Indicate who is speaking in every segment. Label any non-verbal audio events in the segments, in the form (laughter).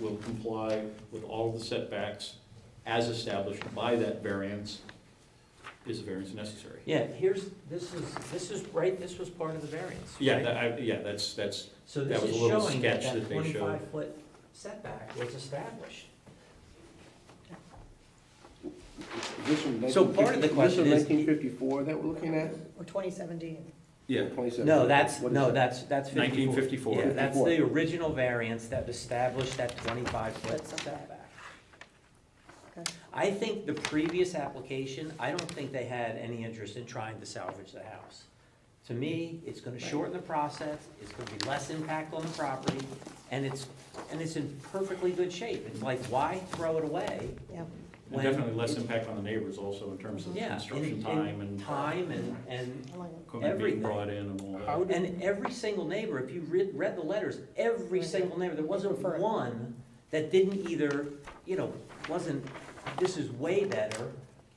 Speaker 1: will comply with all of the setbacks as established by that variance, is the variance necessary?
Speaker 2: Yeah, here's, this is, this is, right, this was part of the variance, right?
Speaker 1: Yeah, that, I, yeah, that's, that's,
Speaker 2: So
Speaker 1: that
Speaker 2: this
Speaker 1: was
Speaker 2: is
Speaker 1: a little
Speaker 2: showing that
Speaker 1: sketch
Speaker 2: that
Speaker 1: that they showed.
Speaker 2: twenty-five foot setback was established.
Speaker 3: This one,
Speaker 2: So
Speaker 3: 1950
Speaker 2: part of the question is-
Speaker 3: This one nineteen fifty-four that we're looking at?
Speaker 4: Or 2017.
Speaker 1: yeah,
Speaker 3: 27.
Speaker 2: No, that's,
Speaker 3: What is
Speaker 2: no,
Speaker 3: it?
Speaker 2: that's, that's fifty-four.
Speaker 1: 1954.
Speaker 2: Yeah, that's
Speaker 3: 54.
Speaker 2: the original variance that established that twenty-five foot
Speaker 4: That's okay.
Speaker 2: setback.
Speaker 4: Okay.
Speaker 2: I think the previous application, I don't think they had any interest in trying to salvage the house. To me, it's gonna
Speaker 4: Right.
Speaker 2: shorten the process, it's gonna be less impact on the property, and it's, and it's in perfectly good shape. It's like, why throw it away?
Speaker 4: Yeah.
Speaker 1: and
Speaker 2: when
Speaker 1: definitely less
Speaker 2: it's-
Speaker 1: impact on the neighbors also in terms of
Speaker 2: Yeah,
Speaker 1: construction
Speaker 2: in- in
Speaker 1: time and
Speaker 2: Time and, and
Speaker 4: I like it.
Speaker 1: equipment being
Speaker 2: everything.
Speaker 1: brought in and all that.
Speaker 3: How do-
Speaker 2: And every single neighbor, if you read, read the letters, every
Speaker 4: Right.
Speaker 2: single neighbor, there wasn't
Speaker 4: Prefer it.
Speaker 2: one that didn't either, you know, wasn't, this is way better.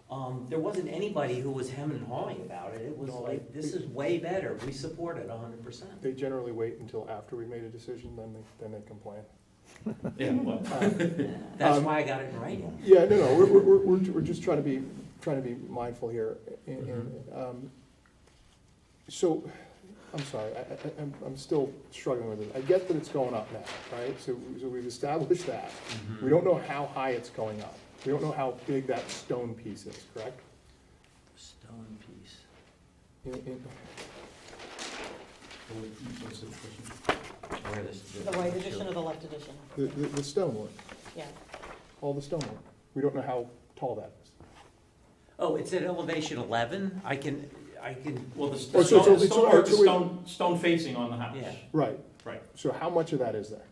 Speaker 2: Um, there wasn't anybody who was hemming and hawing about it. It was
Speaker 5: No,
Speaker 2: like,
Speaker 5: I-
Speaker 2: this is way better. We support it a hundred percent.
Speaker 5: They generally wait until after we made a decision, then they, then they complain.
Speaker 1: Yeah, well,
Speaker 2: That's
Speaker 5: Um,
Speaker 2: why I got it in writing.
Speaker 5: Yeah, no, no, we're, we're, we're, we're- we're just trying to be, trying to be mindful here. and- and,
Speaker 2: Mm-hmm.
Speaker 5: um, So, I'm sorry, I, I, I'm, I'm still struggling with it. I get that it's going up now, right? So, so we've established that.
Speaker 2: Mm-hmm.
Speaker 5: We don't know how high it's going up. We don't know how big that stone piece is, correct?
Speaker 2: Stone piece.
Speaker 5: In- in-
Speaker 1: what's the question?
Speaker 2: Where this.
Speaker 4: The right edition or the left edition?
Speaker 5: The, the, the stonework,
Speaker 4: Yeah.
Speaker 5: all the stonework. We don't know how tall that is.
Speaker 2: Oh, it's at elevation eleven. I can, I can,
Speaker 1: Well, the stone,
Speaker 5: Oh, so- so-
Speaker 1: stone,
Speaker 5: so-
Speaker 1: or the
Speaker 5: so we-
Speaker 1: stone, stone facing on the house.
Speaker 2: Yeah.
Speaker 5: Right,
Speaker 1: Right.
Speaker 5: so how much of that is there?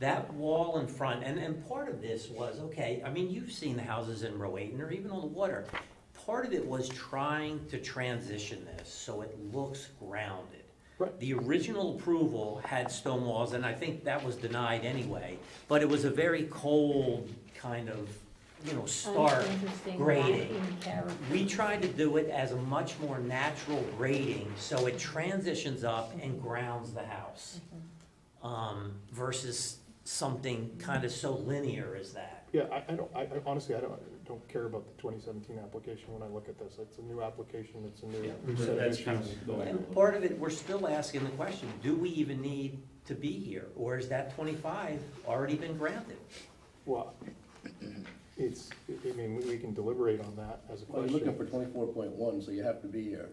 Speaker 2: That wall in front, and, and part of this was, okay, I mean, you've seen the houses in Rowayton or even on the water. Part of it was trying to transition this so it looks grounded.
Speaker 5: Right.
Speaker 2: The original approval had stone walls, and I think that was denied anyway, but it was a very cold kind of, you know, stark
Speaker 6: Uninteresting,
Speaker 2: grading.
Speaker 6: lacking character.
Speaker 2: We tried to do it as a much more natural grading, so it transitions up and grounds the house.
Speaker 6: Mm-hmm.
Speaker 2: Um, versus something kind of so linear as that.
Speaker 5: Yeah, I, I don't, I I honestly, I don't, I don't care about the twenty seventeen application when I look at this. It's a new application, it's a
Speaker 1: Yeah,
Speaker 5: new
Speaker 1: so
Speaker 5: set of
Speaker 1: that's kind of
Speaker 5: issues.
Speaker 1: the way I
Speaker 2: And
Speaker 1: look.
Speaker 2: part of it, we're still asking the question, do we even need to be here? Or is that twenty-five already been granted?
Speaker 5: Well, it's, I mean, we- we can deliberate on that as a
Speaker 3: Well, you're looking for
Speaker 5: question.
Speaker 3: twenty-four point one, so you have to be here.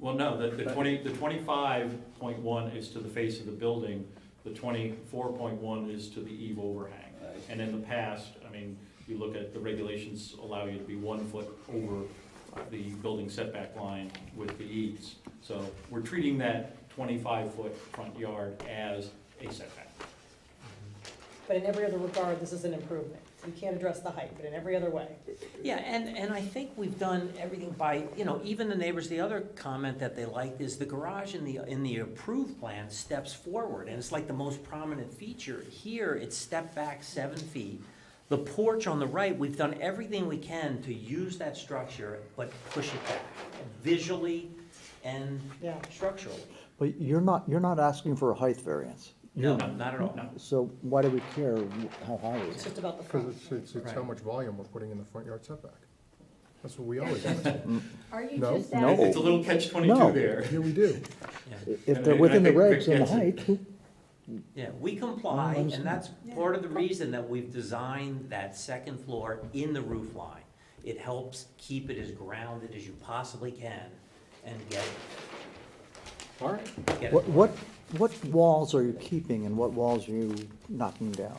Speaker 1: Well, no, the, the twenty, the twenty-five point one is to the face of the building, the twenty-four point one is to the eve overhang.
Speaker 3: Right.
Speaker 1: And in the past, I mean, you look at, the regulations allow you to be one foot over the building setback line with the eaves. So we're treating that twenty-five foot front yard as a setback.
Speaker 4: But in every other regard, this is an improvement. You can't address the height, but in every other way.
Speaker 2: Yeah, and, and I think we've done everything by, you know, even the neighbors, the other comment that they liked is the garage in the, in the approved plan steps forward, and it's like the most prominent feature. Here, it's stepped back seven feet. The porch on the right, we've done everything we can to use that structure, but push it back visually and
Speaker 4: Yeah.
Speaker 2: structurally.
Speaker 7: But you're not, you're not asking for a height variance.
Speaker 2: No, not at all.
Speaker 1: No.
Speaker 7: So why do we care wh- how high it
Speaker 4: It's
Speaker 7: is?
Speaker 4: just about the
Speaker 5: Because
Speaker 4: front.
Speaker 5: it's, it's, it's how
Speaker 2: Right.
Speaker 5: much volume we're putting in the front yard setback.
Speaker 1: (laughs)
Speaker 5: That's what we always ask.
Speaker 6: Are you
Speaker 5: No.
Speaker 6: just
Speaker 7: No.
Speaker 6: asking?
Speaker 1: It's a little catch
Speaker 7: No.
Speaker 1: twenty-two there.
Speaker 5: Yeah, we do.
Speaker 7: If
Speaker 1: And I-
Speaker 7: they're
Speaker 1: and I
Speaker 7: within the
Speaker 1: think Rick
Speaker 7: regs and the
Speaker 1: gets it.
Speaker 7: height, who-
Speaker 2: Yeah, we comply, and
Speaker 7: understand.
Speaker 2: that's part of the reason that we've designed that second floor in the roof line. It helps keep it as grounded as you possibly can and get,
Speaker 5: All right,
Speaker 2: get
Speaker 7: what,
Speaker 2: it.
Speaker 7: what, what walls are you keeping and what walls are you knocking down?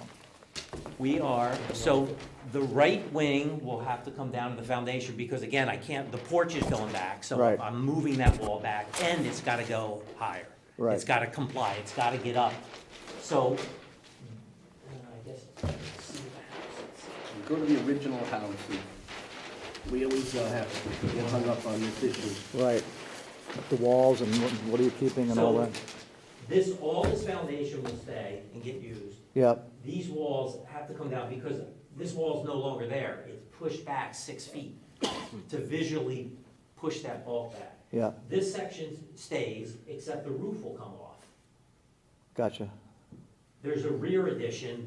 Speaker 2: We are, so the right wing will have to come down to the foundation, because again, I can't, the porch is going back, so
Speaker 7: Right.
Speaker 2: I'm moving that wall back, and it's gotta go higher.
Speaker 7: Right.
Speaker 2: It's gotta comply, it's gotta get up, so. I guess, see the
Speaker 3: You Go to the original house. and We always uh, have, get hung up on this issue.
Speaker 7: Right, the walls and what, what are you keeping and all
Speaker 2: So,
Speaker 7: that?
Speaker 2: this, all this foundation will stay and get used.
Speaker 7: Yep,
Speaker 2: These walls have to come down because this wall's no longer there. It's pushed back six feet to visually push that bulk back.
Speaker 7: yeah,
Speaker 2: This section stays, except the roof will come off.
Speaker 7: gotcha.
Speaker 2: There's a rear addition